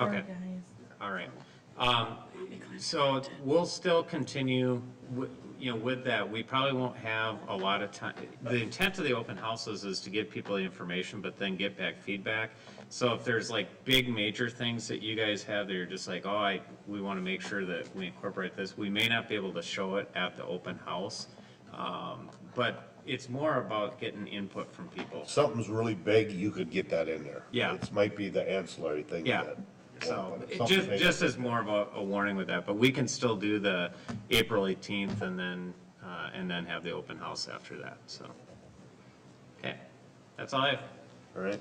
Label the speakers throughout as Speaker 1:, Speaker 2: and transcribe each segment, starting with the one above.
Speaker 1: Okay. All right. Um, So we'll still continue, wi- you know, with that. We probably won't have a lot of time. The intent of the open houses is to give people the information, but then get back feedback. So if there's like big major things that you guys have that you're just like, oh, I, we want to make sure that we incorporate this, we may not be able to show it at the open house. Um, But it's more about getting input from people.
Speaker 2: Something's really big, you could get that in there.
Speaker 1: Yeah.
Speaker 2: It might be the ancillary thing.
Speaker 1: Yeah,
Speaker 2: that-
Speaker 1: so
Speaker 2: But
Speaker 1: it
Speaker 2: something
Speaker 1: just,
Speaker 2: big.
Speaker 1: just as more of a, a warning with that, but we can still do the April eighteenth and then, uh, and then have the open house after that, so. Okay, that's all I have.
Speaker 2: All right.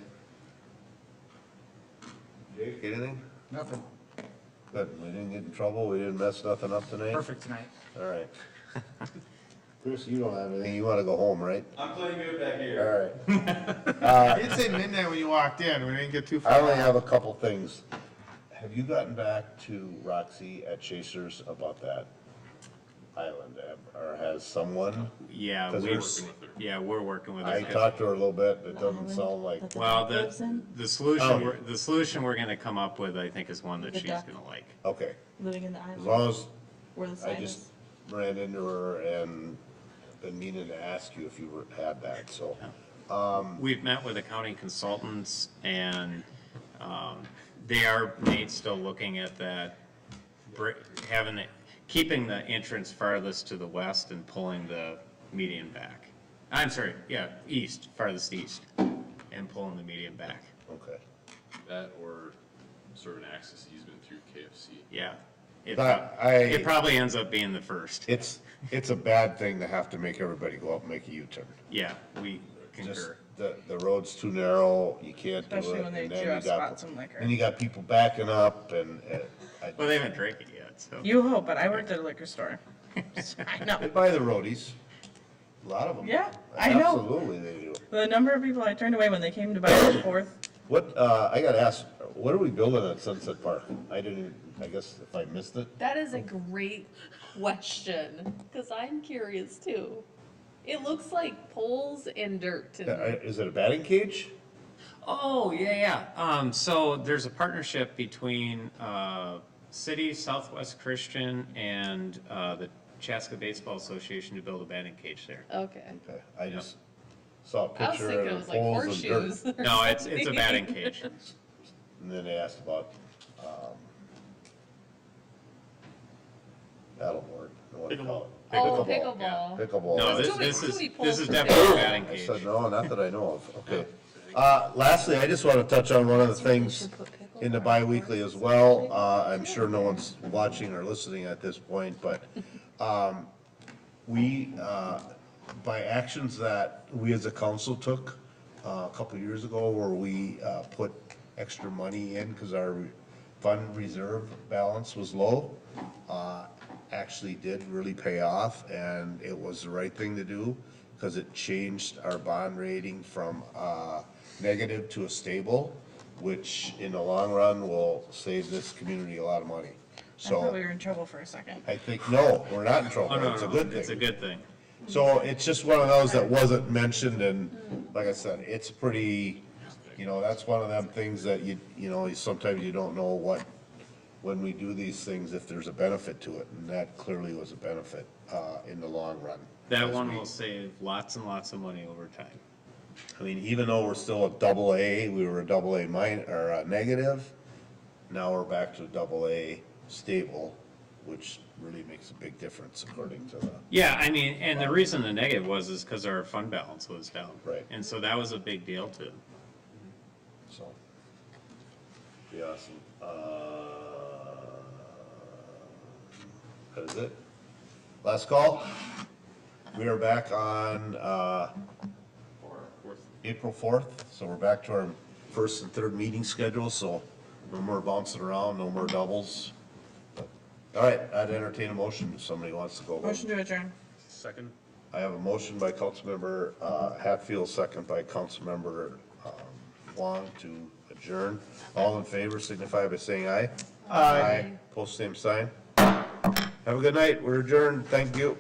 Speaker 2: Jake, anything?
Speaker 3: Nothing.
Speaker 2: Good, we didn't get in trouble, we didn't mess nothing up tonight?
Speaker 3: Perfect tonight.
Speaker 2: All right. Chris, you don't have anything, you wanna go home, right?
Speaker 4: I'm playing good back here.
Speaker 2: All right. Uh,
Speaker 5: I did say midnight when you walked in. We didn't get too
Speaker 2: I
Speaker 5: far.
Speaker 2: only have a couple things. Have you gotten back to Roxy at Chasers about that island, or has someone?
Speaker 1: Yeah,
Speaker 2: 'Cause
Speaker 1: we're,
Speaker 2: there's-
Speaker 1: yeah, we're working with
Speaker 2: I
Speaker 1: it.
Speaker 2: talked to her a little bit, it doesn't sound like,
Speaker 1: Well, the, the solution,
Speaker 2: Oh.
Speaker 1: we're- the solution we're gonna come up with, I think, is one that
Speaker 6: The
Speaker 1: she's
Speaker 6: duck.
Speaker 1: gonna like.
Speaker 2: okay,
Speaker 6: Living in the
Speaker 2: as
Speaker 6: island
Speaker 2: long as
Speaker 6: where the
Speaker 2: I
Speaker 6: sign
Speaker 2: just
Speaker 6: is.
Speaker 2: ran into her and been meaning to ask you if you were, had that, so.
Speaker 1: We've met with accounting consultants and um, they are, Nate's still looking at that, br- having it, keeping the entrance farthest to the west and pulling the median back. I'm sorry, yeah, east, farthest east, and pulling the median back.
Speaker 2: Okay.
Speaker 4: That or sort of an access easement through KFC.
Speaker 1: Yeah. It
Speaker 2: That-
Speaker 1: prob-
Speaker 2: I-
Speaker 1: It probably ends up being the first.
Speaker 2: It's, it's a bad thing to have to make everybody go up and make a U-turn.
Speaker 1: Yeah, we
Speaker 2: Just,
Speaker 1: concur.
Speaker 2: the, the road's too narrow, you can't do it.
Speaker 7: Especially when they
Speaker 2: and then
Speaker 7: do
Speaker 2: you
Speaker 7: have
Speaker 2: got-
Speaker 7: spots and liquor.
Speaker 2: Then you got people backing up and, uh, I-
Speaker 1: Well, they haven't drank it yet, so.
Speaker 7: You hope, but I worked at a liquor store. I know.
Speaker 2: they buy the roadies. A lot of them.
Speaker 7: Yeah, I know.
Speaker 2: Absolutely they do.
Speaker 7: The number of people I turned away when they came to buy the fourth,
Speaker 2: What, uh, I gotta ask, what are we building at Sunset Park? I didn't, I guess if I missed it.
Speaker 8: That is a great question because I'm curious too. It looks like poles and dirt to
Speaker 2: Uh,
Speaker 8: me.
Speaker 2: Is it a batting cage?
Speaker 1: Oh, yeah, yeah. Um, so there's a partnership between, uh, City, Southwest Christian, and, uh, the Chaska Baseball Association to build a batting cage there.
Speaker 8: Okay.
Speaker 2: Okay, I just saw a
Speaker 8: I was
Speaker 2: picture
Speaker 8: thinking it
Speaker 2: of
Speaker 8: was like
Speaker 2: poles and dirt.
Speaker 8: horseshoes. or
Speaker 1: No, it's, it's a
Speaker 8: something.
Speaker 1: batting cage.
Speaker 2: And then they asked about, um, paddleboard, I want to call it.
Speaker 8: Oh,
Speaker 1: yeah.
Speaker 8: pickleball.
Speaker 2: Pickleball.
Speaker 1: No,
Speaker 8: Well,
Speaker 1: this,
Speaker 8: do we-
Speaker 1: this
Speaker 8: do
Speaker 1: is,
Speaker 8: we pull
Speaker 1: this is
Speaker 8: from-
Speaker 1: definitely a batting
Speaker 2: I
Speaker 1: cage.
Speaker 2: said, no, not that I know of, okay. Uh, lastly, I just want to touch on one of the things in the bi-weekly as well. Uh, I'm sure no one's watching or listening at this point, but, um, we, uh, by actions that we as a council took, uh, a couple years ago, where we, uh, put extra money in, cause our fund reserve balance was low, uh, actually did really pay off, and it was the right thing to do, because it changed our bond rating from uh, negative to a stable, which in the long run will save this community a lot of money.
Speaker 7: I thought we
Speaker 2: So
Speaker 7: were in trouble for a second.
Speaker 2: I think, no, we're not in
Speaker 1: Oh,
Speaker 2: trouble,
Speaker 1: no,
Speaker 2: it's a
Speaker 1: no,
Speaker 2: good
Speaker 1: It's a
Speaker 2: thing.
Speaker 1: good thing.
Speaker 2: So it's just one of those that wasn't mentioned, and like I said, it's pretty, you know, that's one of them things that you, you know, sometimes you don't know what, when we do these things, if there's a benefit to it, and that clearly was a benefit uh, in the long run.
Speaker 1: That one will save lots and lots of money over time.
Speaker 2: I mean, even though we're still a double A, we were a double A minus, or a negative, now we're back to a double A stable, which really makes a big difference according to the,
Speaker 1: Yeah, I mean, and the reason the negative was is because our fund balance was down.
Speaker 2: Right.
Speaker 1: And so that was a big deal too.
Speaker 2: so. Be awesome. Uh, That is it. Last call. We are back on, uh, April fourth, so we're back to our first and third meeting schedule, so no more bouncing around, no more doubles. All right, I'd entertain a motion if somebody wants to go. home.
Speaker 7: Motion to adjourn.
Speaker 1: Second?
Speaker 2: I have a motion by Councilmember uh, Hatfield, second by Councilmember um, Wong to adjourn. All in favor signify by saying aye. Aye. Post same sign. Have a good night, we're adjourned, thank you.